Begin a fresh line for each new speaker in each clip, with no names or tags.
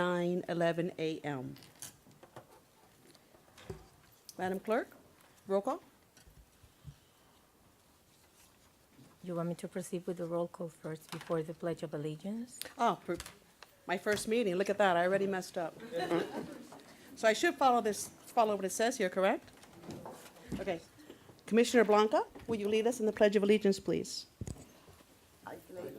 nine eleven a.m. Madam Clerk, roll call?
You want me to proceed with the roll call first before the Pledge of Allegiance?
Oh, pr- my first meeting, look at that, I already messed up. So I should follow this, follow what it says here, correct? Okay. Commissioner Blanca, will you lead us in the Pledge of Allegiance, please?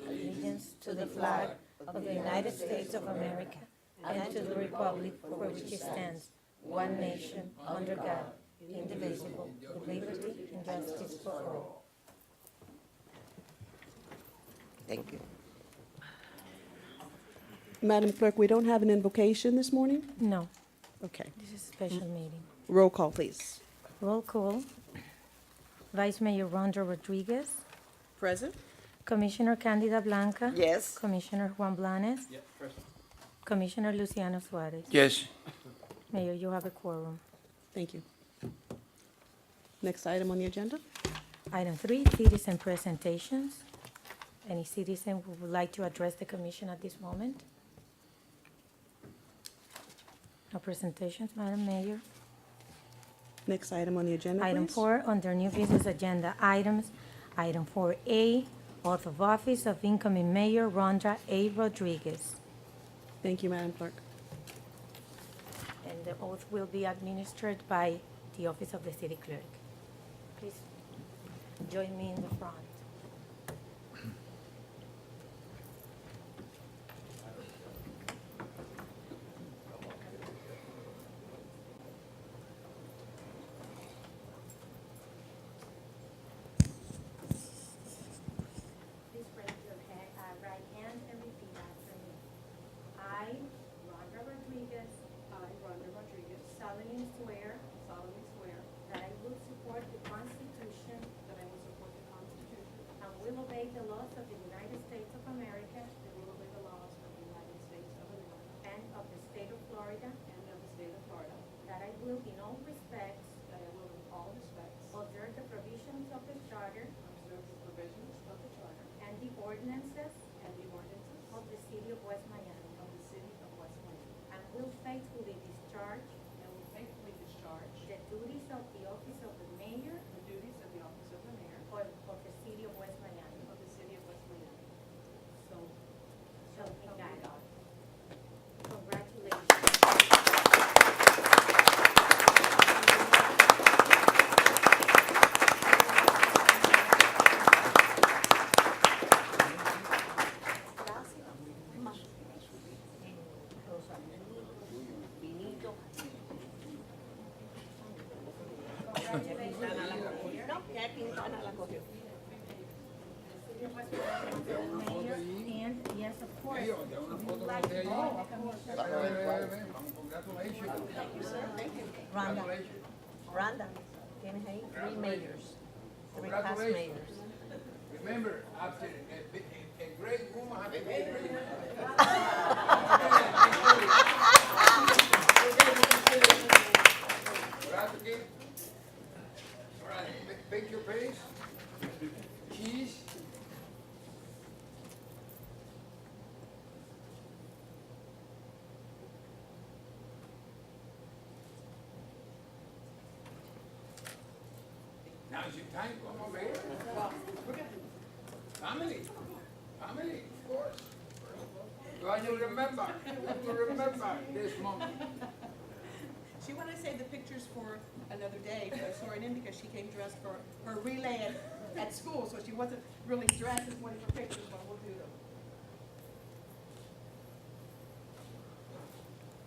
Allegiance to the flag of the United States of America and to the republic for which it stands, one nation, under God, indivisible, with liberty and justice for all.
Thank you.
Madam Clerk, we don't have an invocation this morning?
No,
Okay.
this is a special meeting.
Roll call, please.
Roll call. Vice Mayor Rhonda Rodriguez,
Present?
Commissioner Candida Blanca.
Yes.
Commissioner Juan Blanes. Commissioner Luciano Suarez.
Yes,
Mayor, you have a quorum.
Thank you. Next item on the agenda?
Item three, citizen presentations. Any citizen who would like to address the commission at this moment? No presentations, Madam Mayor.
Next item on the agenda, please?
Item four, under new business agenda items, item four A, oath of office of incoming mayor Rhonda A. Rodriguez.
Thank you, Madam Clerk.
And the oath will be administered by the office of the city clerk. Please join me in the front. Please raise your ha- uh, right hand and repeat after me. I Rhonda Rodriguez. I, Rhonda Rodriguez. solemnly swear. solemnly swear. That I will support the Constitution. That I will support the Constitution. And will obey the laws of the United States of America. And will obey the laws of the United States of America. And of the state of Florida. And of the state of Florida. That I will in all respects. That I will in all respects. Observe the provisions of the charter. Observe the provisions of the charter. And the ordinances. And the ordinances. Of the city of West Miami. Of the city of West Miami. And will faithfully discharge. And will faithfully discharge. The duties of the office of the mayor. The duties of the office of the mayor. Of, of the city of West Miami. Of the city of West Miami. So. So help me God. Congratulations. Mayor, and yes, of course.
Rhonda, Rhonda, tiene ahí three mayors, three past
Congratulations.
mayors.
remember, after a, bi- a, a great woman has a great man. Right, okay? All right, ma- make your face. Cheese. Now is your time, come over here. Family, family, of course. Well, you remember, you remember this moment.
She wanted to save the pictures for another day, but I saw her in because she came dressed for her relay at, at school, so she wasn't really dressed as one of her pictures, but we'll do them.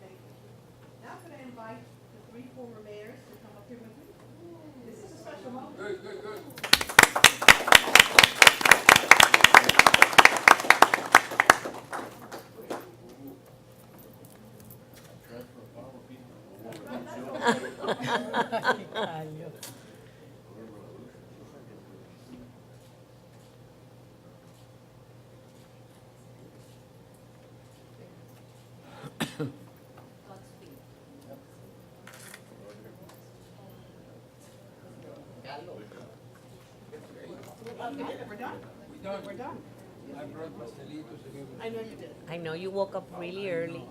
Thank you. Now I'm gonna invite the three former mayors to come up here with me. This is a special moment.
Good, good, good.
We're done?
We done.
We're done.
We
I brought pastelitos and everything.
I know you did.
I know you woke up really early.